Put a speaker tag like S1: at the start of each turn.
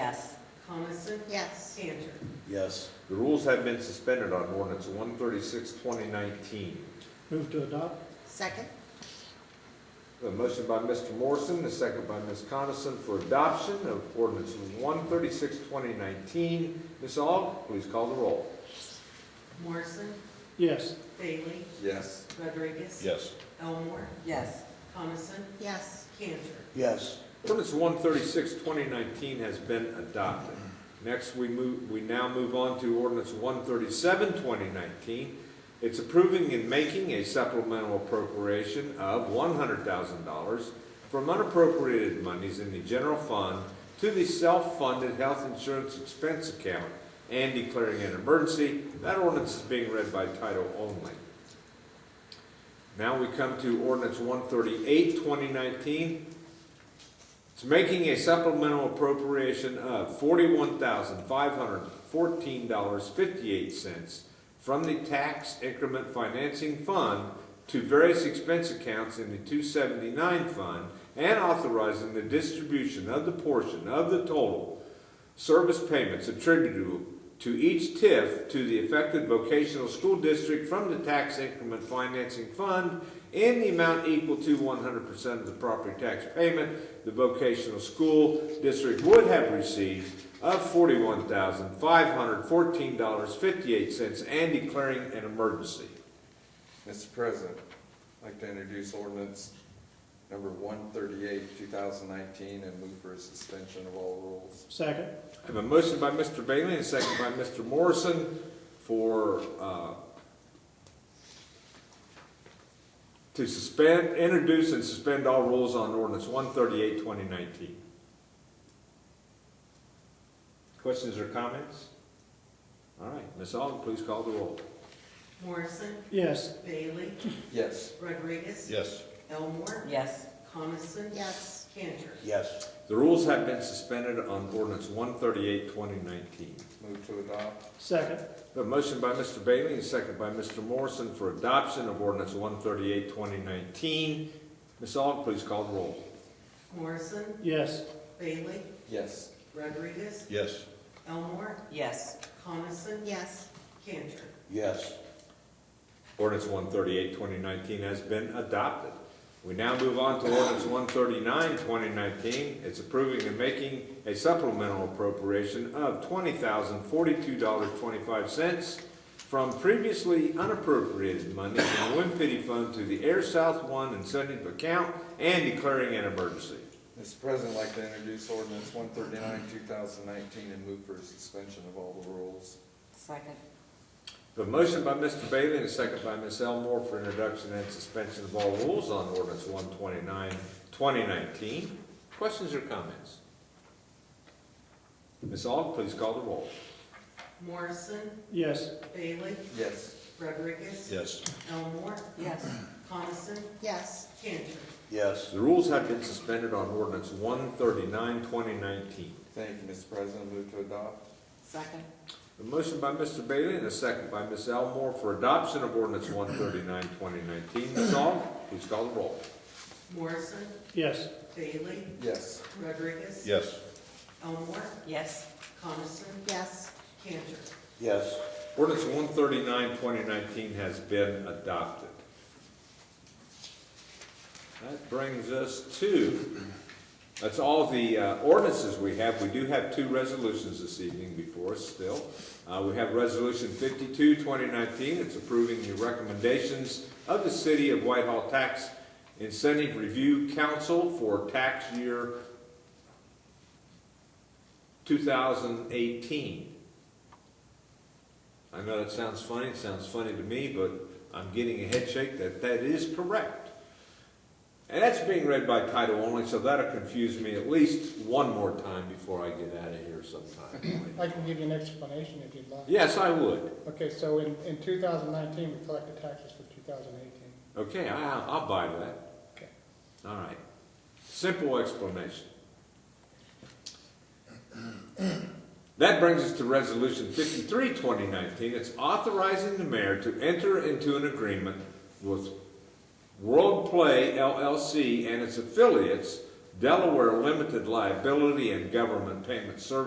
S1: Yes.
S2: Coniston?
S3: Yes.
S2: Cantor?
S4: Yes.
S5: The rules have been suspended on ordinance 136, 2019.
S6: Move to adopt?
S3: Second?
S5: A motion by Mr. Morrison, a second by Ms. Coniston for adoption of ordinance 136, 2019. Ms. Aug, please call the roll.
S2: Morrison?
S6: Yes.
S2: Bailey?
S5: Yes.
S2: Rodriguez?
S4: Yes.
S2: Elmore?
S1: Yes.
S2: Coniston?
S3: Yes.
S2: Cantor?
S4: Yes.
S5: Ordinance 136, 2019 has been adopted. Next, we move, we now move on to ordinance 137, 2019. It's approving and making a supplemental appropriation of $100,000 from unappropriated monies in the general fund to the self-funded health insurance expense account and declaring an emergency. That ordinance is being read by title only. Now we come to ordinance 138, 2019. It's making a supplemental appropriation of forty-one thousand five hundred fourteen dollars fifty-eight cents from the tax increment financing fund to various expense accounts in the two seventy-nine fund and authorizing the distribution of the portion of the total service payments attributable to each TIF to the affected vocational school district from the tax increment financing fund in the amount equal to one hundred percent of the property tax payment the vocational school district would have received of forty-one thousand five hundred fourteen dollars fifty-eight cents and declaring an emergency.
S7: Mr. President, I'd like to introduce ordinance number 138, 2019, and move for a suspension of all rules.
S6: Second?
S5: I have a motion by Mr. Bailey and a second by Mr. Morrison for, uh, to suspend, introduce and suspend all rules on ordinance 138, 2019. Questions or comments? All right, Ms. Aug, please call the roll.
S2: Morrison?
S6: Yes.
S2: Bailey?
S7: Yes.
S2: Rodriguez?
S4: Yes.
S2: Elmore?
S1: Yes.
S2: Coniston?
S3: Yes.
S2: Cantor?
S4: Yes.
S5: The rules have been suspended on ordinance 138, 2019.
S7: Move to adopt?
S6: Second?
S5: A motion by Mr. Bailey and a second by Mr. Morrison for adoption of ordinance 138, 2019. Ms. Aug, please call the roll.
S2: Morrison?
S6: Yes.
S2: Bailey?
S7: Yes.
S2: Rodriguez?
S4: Yes.
S2: Elmore?
S1: Yes.
S2: Coniston?
S3: Yes.
S2: Cantor?
S4: Yes.
S5: Ordinance 138, 2019 has been adopted. We now move on to ordinance 139, 2019. It's approving and making a supplemental appropriation of $20,042.25 from previously unappropriated money from the Wind Pity Fund to the Air South 1 incentive account and declaring an emergency.
S7: Mr. President, I'd like to introduce ordinance 139, 2019, and move for a suspension of all the rules.
S1: Second.
S5: The motion by Mr. Bailey and a second by Ms. Elmore for introduction and suspension of all rules on ordinance 129, 2019. Questions or comments? Ms. Aug, please call the roll.
S2: Morrison?
S6: Yes.
S2: Bailey?
S7: Yes.
S2: Rodriguez?
S4: Yes.
S2: Elmore?
S1: Yes.
S2: Coniston?
S3: Yes.
S2: Cantor?
S4: Yes.
S5: The rules have been suspended on ordinance 139, 2019.
S7: Thank you, Mr. President. Move to adopt?
S1: Second.
S5: The motion by Mr. Bailey and a second by Ms. Elmore for adoption of ordinance 139, 2019. Ms. Aug, please call the roll.
S2: Morrison?
S6: Yes.
S2: Bailey?
S7: Yes.
S2: Rodriguez?
S4: Yes.
S2: Elmore?
S1: Yes.
S2: Coniston?
S3: Yes.
S2: Cantor?
S4: Yes.
S5: Ordinance 139, 2019 has been adopted. That brings us to, that's all the uh, ordinances we have. We do have two resolutions this evening before us still. Uh, We have Resolution 52, 2019. It's approving the recommendations of the City of Whitehall Tax Incentive Review Council for tax year 2018. I know that sounds funny, it sounds funny to me, but I'm getting a head shake that that is correct. And that's being read by title only, so that'll confuse me at least one more time before I get out of here sometime.
S8: I can give you an explanation if you'd like.
S5: Yes, I would.
S8: Okay, so in, in 2019, we collected taxes for 2018.
S5: Okay, I, I'll buy that.
S8: Okay.
S5: All right. Simple explanation. That brings us to Resolution 53, 2019. It's authorizing the mayor to enter into an agreement with World Play LLC and its affiliates, Delaware Limited Liability and Government Payment Services.